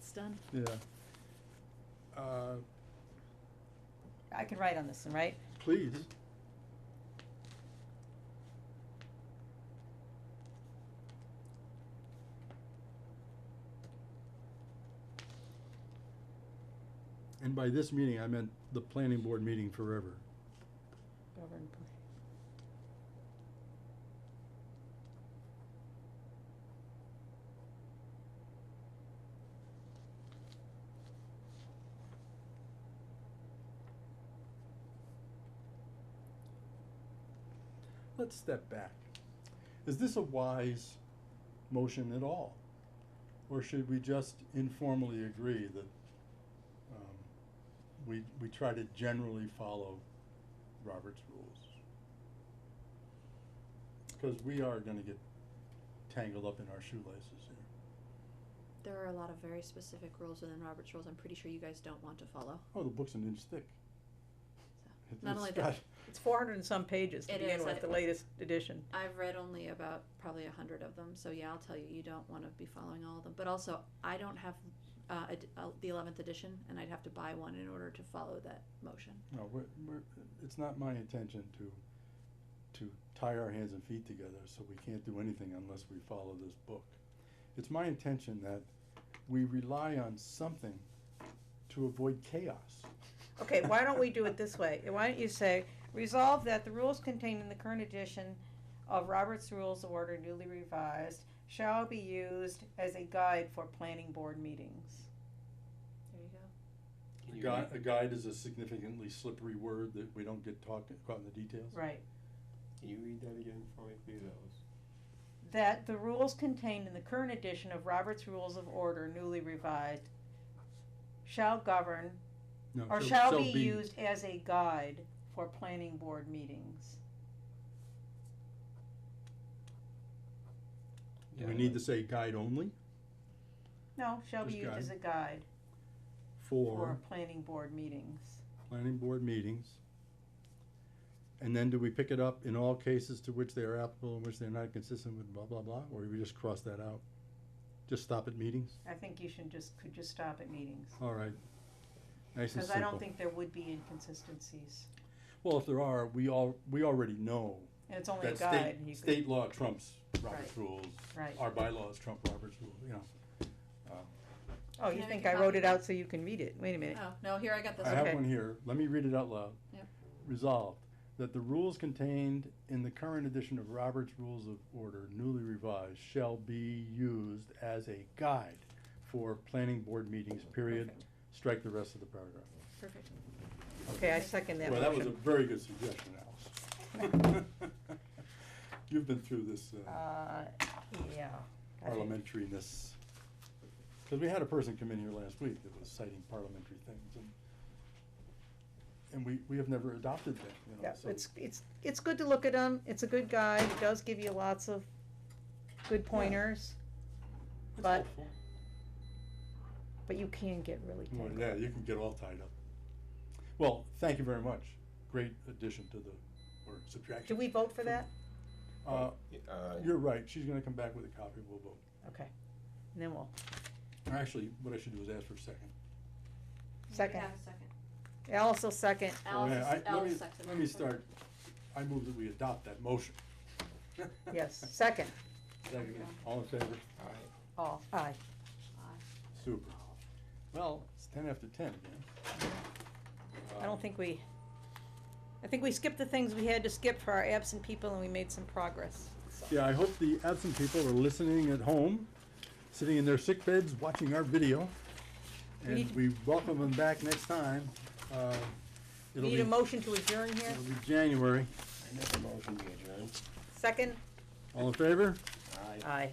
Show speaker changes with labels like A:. A: it's done.
B: yeah,
C: Uh,
D: I can write on this one, right?
B: please. And by this meeting, I meant the planning board meeting forever.
D: Govern plan.
B: Let's step back. Is this a wise motion at all? Or should we just informally agree that, um, we, we try to generally follow Robert's rules? Cause we are gonna get tangled up in our shoelaces here.
A: There are a lot of very specific rules within Robert's rules I'm pretty sure you guys don't want to follow.
B: Oh, the book's an inch thick. It-
A: Not
B: it's
A: only that-
B: got-
D: It's four hundred and some pages to
A: It
D: begin
A: is,
D: with,
A: I-
D: the latest edition.
A: I've read only about probably a hundred of them, so yeah, I'll tell you, you don't want to be following all of them. But also, I don't have uh, ed- uh, the eleventh edition, and I'd have to buy one in order to follow that motion.
B: No, we're, we're, it's not my intention to, to tie our hands and feet together, so we can't do anything unless we follow this book. It's my intention that we rely on something to avoid chaos.
D: Okay, why don't we do it this way? Why don't you say, resolve that the rules contained in the current edition of Robert's Rules of Order newly revised shall be used as a guide for planning board meetings.
A: There you go.
B: A
E: Can you
B: guide,
E: read-
B: a guide is a significantly slippery word that we don't get talk, caught in the details.
D: Right.
E: Can you read that again for me, please? That was.
D: That the rules contained in the current edition of Robert's Rules of Order newly revised shall govern
B: No,
D: or
B: shall-
D: shall be used as a guide for planning board meetings.
B: Do we need to say guide only
D: No, shall be
B: Just
D: used
B: guide.
D: as a guide for
B: for
D: planning board meetings.
B: planning board meetings? And then do we pick it up in all cases to which they are applicable and which they're not consistent with blah, blah, blah, or we just cross that out? Just stop at meetings?
D: I think you should just, could just stop at meetings,
B: All right. Nice and
D: because I don't
B: simple.
D: think there would be inconsistencies.
B: Well, if there are, we all, we already know
D: And it's only a
B: that
D: guide, Oh you
B: state,
D: could,
B: state law trumps Robert's rules.
D: Right.
B: Our bylaws trump Robert's rules, you know. Um,
D: oh,
A: Can
D: you
A: I
D: think
A: make
D: I
A: a
D: wrote
A: copy?
D: it out so you can read it, wait a minute.
A: Oh no, here I got this.
B: I
A: one.
B: have
D: okay.
B: one here, let me read it out loud.
A: Yep.
B: Resolved, that the rules contained in the current edition of Robert's Rules of Order newly revised shall be used as a guide for planning board meetings, period.
D: Perfect.
B: Strike the rest of the paragraph.
A: Perfect.
D: Okay, I second that
B: Well, that was a
D: motion.
B: very good suggestion, Alice. You've been through this uh,
D: Uh, yeah. I think-
B: parliamentariness. Because we had a person come in here last week that was citing parliamentary things and, and we, we have never adopted that, you know,
D: Yeah,
B: so.
D: it's, it's, it's good to look at them, it's a good guide, it does give you lots of good pointers,
B: it's
D: but-
B: helpful.
D: but you can get really
B: Well,
D: tangled.
B: yeah, you can get all tied up. Well, thank you very much. Great addition to the, or
D: Do
B: subtraction.
D: we vote for that?
B: Uh,
E: Uh,
B: you're right, she's gonna come back with a copy, we'll vote.
D: Okay, and then we'll,
B: Or Actually, what I should do is ask for a second.
D: Second.
A: Have a second.
D: Alice will second,
B: Well,
A: Alice,
B: yeah,
A: is-
B: I- let
A: Alice
B: me-
A: seconded
B: Let me
A: it.
B: start, I move that we adopt that motion.
D: yes, second,
B: Second, all in favor?
E: I-
D: all, aye.
A: Aye.
B: Super. Well, it's ten after ten again.
D: I don't think we, I think we skipped the things we had to skip for our absent people and we made some progress.
B: Yeah, I hope the absent people are listening at home, sitting in their sick beds, watching our video.
D: We
B: And
D: need-
B: we welcome them back next time. Uh, It'll be,
D: Need a
B: it'll
D: motion to adjourn here?
B: be January.
E: I make a motion to adjourn.
D: Second?
B: All in favor?
E: Aye.
D: Aye.